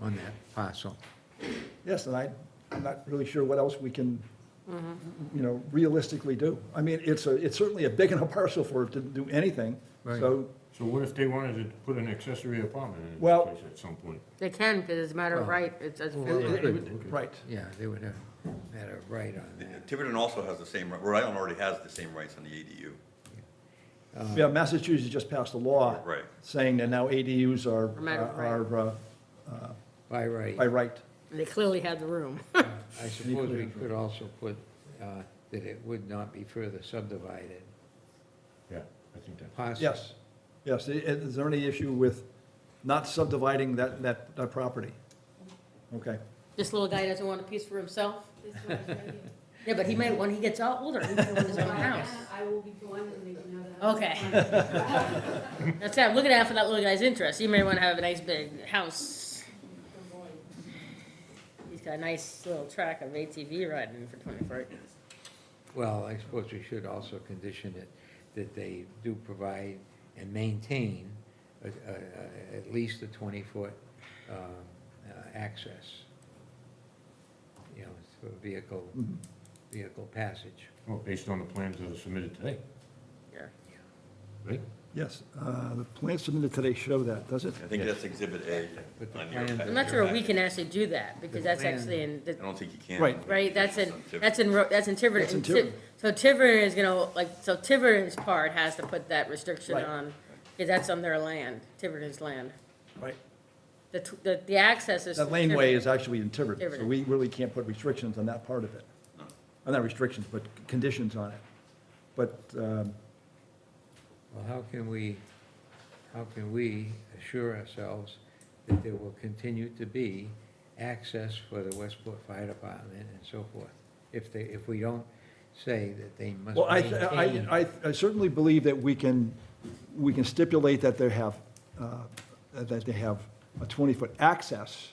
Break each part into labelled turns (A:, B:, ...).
A: on that parcel.
B: Yes, and I, I'm not really sure what else we can, you know, realistically do. I mean, it's a, it's certainly a big enough parcel for it to do anything, so,
C: So what if they wanted to put an accessory apartment in
B: Well-
C: this place at some point?
D: They can, because it's a matter of right, it's, it's,
B: it-
D: well,
B: it- right.
A: Yeah, they would have had a right on that.
E: Tiverton also has the same, Rhode Island already has the same rights on the ADU.
B: Yeah, Massachusetts just passed a law.
E: Right.
B: Saying that now ADUs are,
D: A matter of
B: are, uh,
A: By right.
B: by right.
D: they clearly had the room.
A: I suppose we could also put uh, that it would not be further subdivided.
C: Yeah, I think that,
A: Parcel.
B: Yes, yes. I- Is there any issue with not subdividing that, that, that property? Okay.
D: This little guy doesn't want a piece for himself. Yeah, but he might, when he gets out older, he can own his own house.
F: I will be gone and they can have the house.
D: Okay. That's it, I'm looking out for that little guy's interest. He may want to have a nice big house. He's got a nice little track of ATV riding for twenty-four acres.
A: Well, I suppose we should also condition it that they do provide and maintain a- a- a- at least a 20-foot um, uh, access, you know, for vehicle,
B: Mm-hmm.
A: vehicle passage.
C: well, based on the plans that are submitted today,
D: Yeah.
C: right?
B: Yes, uh, the plan submitted today show that, does it?
E: I think that's Exhibit A
A: But the
E: on your.
A: plan-
E: packet.
D: I'm not sure we can actually do that, because that's
A: plan-
D: actually in, the-
E: I don't think you can.
B: Right.
D: Right, that's in, that's in, Ro- that's in Tiverton.
B: That's in
D: And Ti-
B: Tiverton.
D: So Tiverton is gonna, like, so Tiverton's part has to put that restriction
B: Right.
D: on, because that's on their land, Tiverton's land.
B: Right.
D: The, tw- the, the access is.
B: That
D: from
B: laneway is
D: Tiverton.
B: actually in Tiverton, so
D: Tiverton.
B: we really can't put restrictions on that part of it. Uh, Not restrictions, but conditions on it. But, um,
A: Well, how can we, how can we assure ourselves that there will continue to be access for the Westport Fire Department and so forth? If they, if we don't say that they must
B: well, I, I-
A: maintain.
B: I, I certainly believe that we can, we can stipulate that they have, uh, that they have a 20-foot access,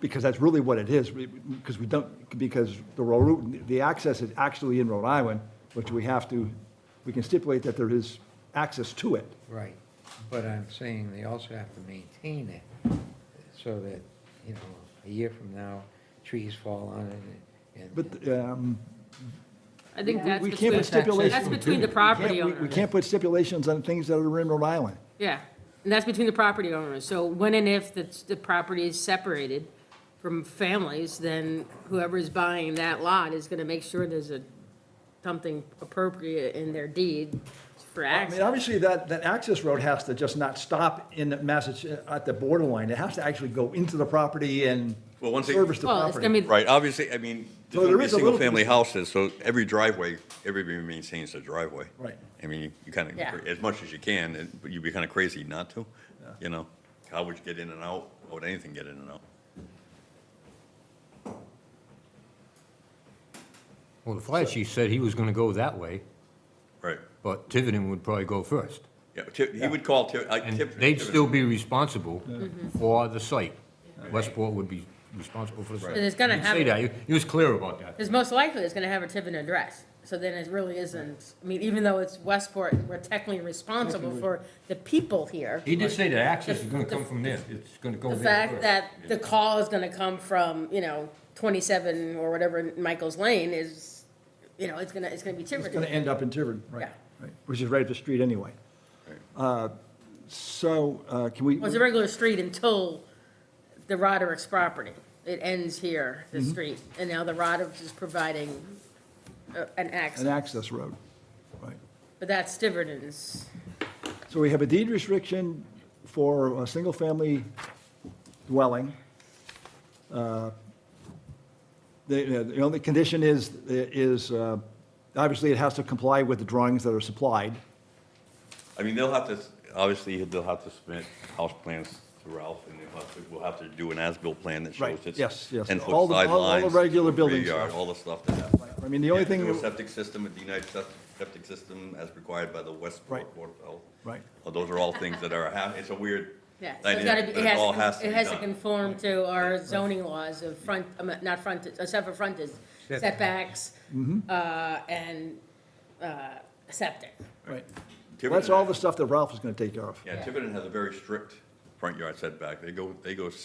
B: because that's really what it is, because we don't, because the road, the access is actually in Rhode Island, which we have to, we can stipulate that there is access to it.
A: Right, but I'm saying they also have to maintain it, so that, you know, a year from now, trees fall on it and.
B: But, um,
D: I think that's
B: we can't
D: between,
B: put stipulations.
D: that's between the
B: We can't-
D: property
B: we- We
D: owners.
B: can't put stipulations on things that are in Rhode Island.
D: Yeah, and that's between the property owners. So when and if the, the property is separated from families, then whoever is buying that lot is gonna make sure there's a, something appropriate in their deed for
B: I
D: access.
B: mean, obviously, that, that access road has to just not stop in Massachusetts, uh, at the borderline. It has to actually go into the property and
E: Well, once they-
B: service the
D: Well, it's gonna
B: property.
D: be,
E: Right, obviously, I mean,
B: So
E: there's
B: there
E: gonna be
B: is a little-
E: single-family houses, so every driveway, everybody maintains their driveway.
B: Right.
E: I mean, you- you kind of,
D: Yeah.
E: as much as you can, and- but you'd be kind of crazy not to, you know? How would you get in and out? How would anything get in and out?
C: Well, the fire chief said he was gonna go that way,
E: Right,
C: but Tiverton would probably go first.
E: yeah, Ti- uh, he would call Tiver, I.
C: And
E: Tiver-
C: they'd
E: Tiver-
C: still be responsible
D: Mm-hmm.
C: for the site. Westport would be responsible for the site.
D: And it's gonna
C: He'd Say
D: happen.
C: that, he he was clear about that.
D: Because most likely it's gonna have a Tiverton address, so then it really isn't, I mean, even though it's Westport, we're technically responsible for the people here.
C: He did say that access is gonna
D: The-
C: come from there, it's gonna go
D: The
C: there
D: fact
C: first.
D: that the call is gonna come from, you know, twenty-seven or whatever Michael's Lane is, you know, it's gonna, it's gonna be
B: It's going to
D: Tiverton.
B: end up in Tiverton, right,
D: Yeah.
B: right, which is right up the street anyway. Uh, So uh, can we,
D: Well, it's a regular street until the Roderick's property. It ends here, the street, and now the Roderick's is providing uh,
B: an
D: an access,
B: access road, right.
D: but that's Tiverton's.
B: So we have a deed restriction for a single-family dwelling. Uh, The, the only condition is, is, uh, obviously, it has to comply with the drawings that are supplied.
E: I mean, they'll have to, obviously, they'll have to submit house plans to Ralph, and they'll have to, we'll have to do an as-built plan that shows
B: Right,
E: it's.
B: yes, yes.
E: Ten-foot
B: All the- all- all the
E: sidelines.
B: regular
E: rear
B: building
E: yard,
B: stuff.
E: All the stuff that happens.
B: I mean, the only thing,
E: Indoor septic system, a denied septic, septic system as required by the Westport
B: Right.
E: Board of Health.
B: Right.
E: Well, Uh, Those are all things that are, hap- it's a weird.
D: Yeah, so it's
E: dynamic,
D: gotta be,
E: but
D: it
E: all
D: has,
E: to
D: to- it
E: be
D: has to
E: done.
D: conform to our zoning laws of front, I mean, not frontage, except for frontage, setbacks,
E: Mm-hmm.
D: uh, and, uh, septic.
B: right,
E: Tiverton
B: that's all the
E: has-
B: stuff that Ralph is gonna take care of.
E: Yeah, Tiverton has a very strict front yard setback. They go, they go